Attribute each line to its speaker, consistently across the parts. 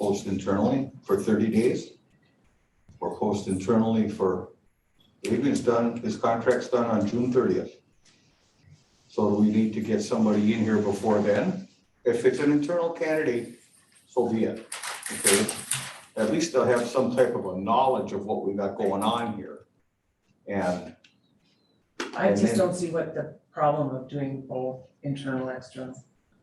Speaker 1: post internally for thirty days? Or post internally for, Adrian's done, his contract's done on June thirtieth. So do we need to get somebody in here before then? If it's an internal candidate, so be it, okay? At least they'll have some type of a knowledge of what we got going on here. And,
Speaker 2: I
Speaker 1: And
Speaker 2: just
Speaker 1: then-
Speaker 2: don't see what the problem of doing both internal, external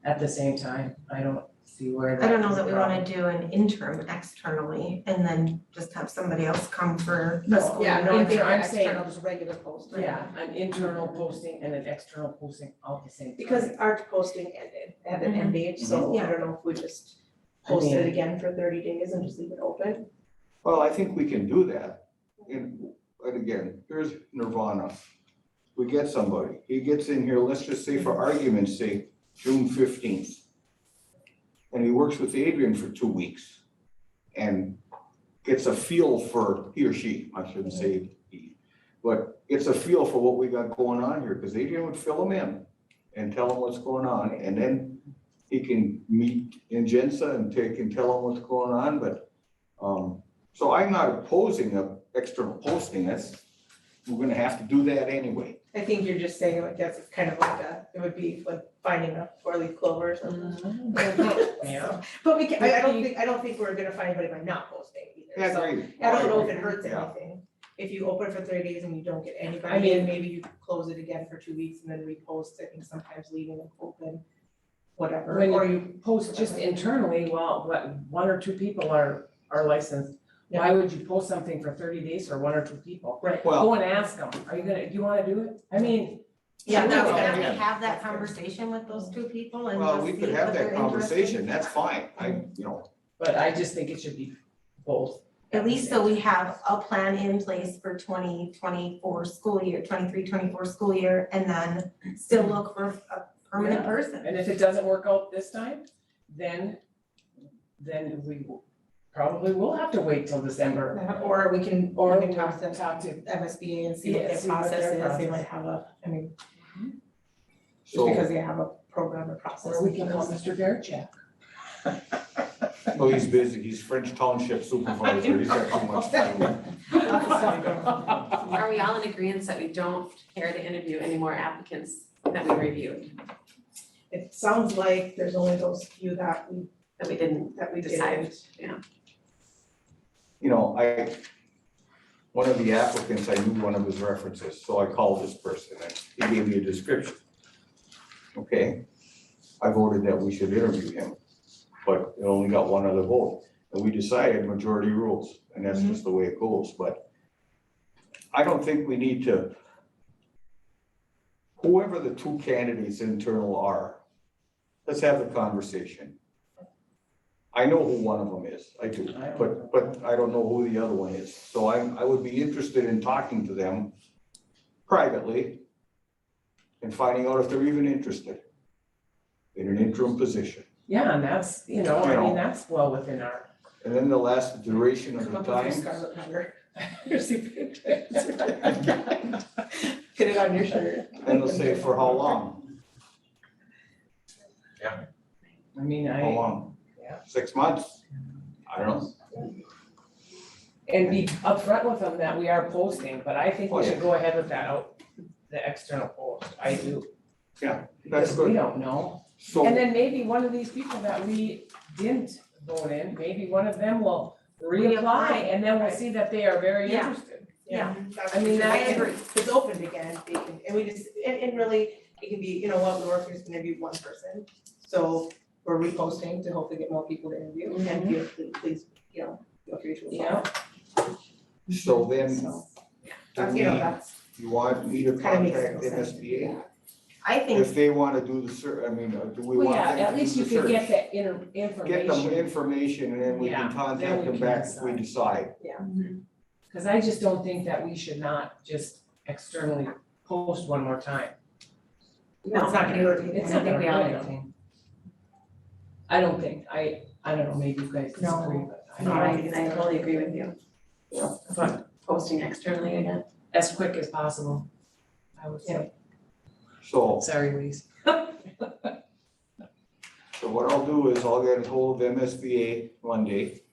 Speaker 2: at the same time. I don't see where
Speaker 3: I
Speaker 2: that
Speaker 3: don't know
Speaker 2: is a
Speaker 3: that we
Speaker 2: problem.
Speaker 3: wanna do an interim externally and then just have somebody else come for the
Speaker 2: No,
Speaker 3: school.
Speaker 2: yeah, no,
Speaker 3: year.
Speaker 2: I think I'm saying-
Speaker 4: just regular posting.
Speaker 2: Yeah, an internal posting and an external posting all at the same time.
Speaker 4: Because our posting ended, had an end date, so I don't know if we just
Speaker 2: Mm-hmm. I
Speaker 4: post it
Speaker 2: mean-
Speaker 4: again for thirty days and just leave it open.
Speaker 1: well, I think we can do that. And, and again, here's Nirvana. We get somebody, he gets in here, let's just say for argument's sake, June fifteenth. And he works with Adrian for two weeks and gets a feel for, he or she, I shouldn't say he. But gets a feel for what we got going on here, because Adrian would fill him in and tell him what's going on, and then he can meet Ingenza and take and tell him what's going on, but, um, so I'm not opposing a external posting, that's, we're gonna have to do that anyway.
Speaker 4: I think you're just saying like that's kind of like a, it would be like finding a four-leaf clover or something.
Speaker 2: Mhm. Yeah.
Speaker 4: But we can, I I don't think, I don't think we're gonna find anybody by not posting either, so
Speaker 1: agree.
Speaker 4: I don't know if it hurts
Speaker 1: Yeah.
Speaker 4: anything. If you open for thirty days and you don't get
Speaker 2: I
Speaker 4: anybody,
Speaker 2: mean-
Speaker 4: and maybe you close it again for two weeks and then repost it and sometimes leaving it open, whatever,
Speaker 2: When
Speaker 4: or you,
Speaker 2: Post just internally, well, what, one or two people are, are licensed. Why would you post something for thirty days for one or two people?
Speaker 4: right,
Speaker 1: Well,
Speaker 2: Go and ask them, are you gonna, do you wanna do it? I mean,
Speaker 3: Yeah,
Speaker 2: Sure.
Speaker 3: now we have
Speaker 1: Yeah.
Speaker 3: to have that conversation with those two people and
Speaker 1: well,
Speaker 3: just
Speaker 1: we
Speaker 3: see
Speaker 1: could
Speaker 3: if
Speaker 1: have
Speaker 3: they're
Speaker 1: that conversation,
Speaker 3: interested.
Speaker 1: that's fine, I, you know,
Speaker 2: but I just think it should be both.
Speaker 3: At least so we have a plan in place for twenty twenty-four school year, 23-24 school year, and then still look for a permanent
Speaker 2: Yeah.
Speaker 3: person.
Speaker 2: And if it doesn't work out this time, then, then we will- probably will have to wait till December.
Speaker 4: or we can,
Speaker 2: Or
Speaker 4: we can talk to them.
Speaker 2: talk to,
Speaker 4: MSBA and see what
Speaker 2: Yeah,
Speaker 4: their
Speaker 2: see what
Speaker 4: process
Speaker 2: their
Speaker 4: is, they
Speaker 2: process.
Speaker 4: might have a, I mean, just
Speaker 1: so,
Speaker 4: because they have a program or process.
Speaker 2: or we can call Mr. Verchak.
Speaker 1: oh, he's busy, he's French Township Supervisor, he's got too much time.
Speaker 5: Are we all in agreement that we don't care to interview any more applicants that we reviewed,
Speaker 4: It sounds like there's only those few that we,
Speaker 5: that we didn't
Speaker 4: that we did.
Speaker 5: decide?
Speaker 1: You know, I, one of the applicants, I knew one of his references, so I called this person, and he gave me a description. Okay, I voted that we should interview him, but it only got one other vote, and we decided majority rules, and that's just the way it goes, but I don't think we need to, whoever the two candidates internal are, let's have the conversation. I know who one of them is, I do,
Speaker 2: I don't know.
Speaker 1: but, but I don't know who the other one is, so I, I would be interested in talking to them privately and finding out if they're even interested in an interim position.
Speaker 2: Yeah, and that's, you know, I mean, that's well within our.
Speaker 1: And then the last duration of
Speaker 4: Come
Speaker 1: the
Speaker 4: up with your
Speaker 1: time,
Speaker 4: scarlet number. Here's your picture. Get it on your shirt.
Speaker 1: and they'll say for how long,
Speaker 2: I mean,
Speaker 1: how
Speaker 2: I,
Speaker 1: long?
Speaker 2: Yeah.
Speaker 1: Six months? I don't know,
Speaker 2: and be upfront with them that we are posting, but I think
Speaker 1: Oh,
Speaker 2: we
Speaker 1: yeah.
Speaker 2: should go ahead with that out, the external post, I do.
Speaker 1: that's
Speaker 2: because We
Speaker 1: good,
Speaker 2: don't know, and
Speaker 1: so,
Speaker 2: then maybe one of these people that we didn't vote in, maybe one of them will reapply,
Speaker 3: Reapply.
Speaker 2: and then we'll see that they are very
Speaker 3: Yeah.
Speaker 2: interested.
Speaker 3: Yeah.
Speaker 4: That's-
Speaker 2: I mean, that-
Speaker 3: I agree.
Speaker 4: It's opened again, they can, and we just, and, and really, it can be, you know what, we're just gonna interview one person. So we're reposting to hopefully get more people to interview, and feel, free- please, you know, feel free to
Speaker 2: Mm-hmm. Yeah.
Speaker 4: apply.
Speaker 1: so then,
Speaker 4: So,
Speaker 1: do
Speaker 4: that's, you know,
Speaker 1: we-
Speaker 4: that's
Speaker 1: you want me to
Speaker 4: Kinda makes
Speaker 1: contact
Speaker 4: no sense.
Speaker 1: MSBA?
Speaker 3: I
Speaker 1: If
Speaker 3: think,
Speaker 1: they wanna do the ser, I mean, uh, do we want them to do the search?
Speaker 2: that inter-
Speaker 1: Get them information and then we
Speaker 2: Yeah,
Speaker 1: can
Speaker 2: then
Speaker 1: contact
Speaker 2: we
Speaker 1: them
Speaker 2: can
Speaker 1: back if we
Speaker 2: decide.
Speaker 1: decide.
Speaker 2: Cause I just don't think that we should not just externally post one more time.
Speaker 3: No.
Speaker 4: it's not gonna hurt anyone.
Speaker 2: It's
Speaker 5: I don't think we all
Speaker 2: I don't think. I don't think, I, I don't know, maybe you guys
Speaker 4: No.
Speaker 2: disagree, but I
Speaker 4: No,
Speaker 2: don't,
Speaker 4: I, I totally agree with you.
Speaker 5: Posting externally again?
Speaker 2: as quick as possible, I would say.
Speaker 1: So
Speaker 2: Sorry, Louise.
Speaker 1: So what I'll do is I'll get a hold of MSBA Monday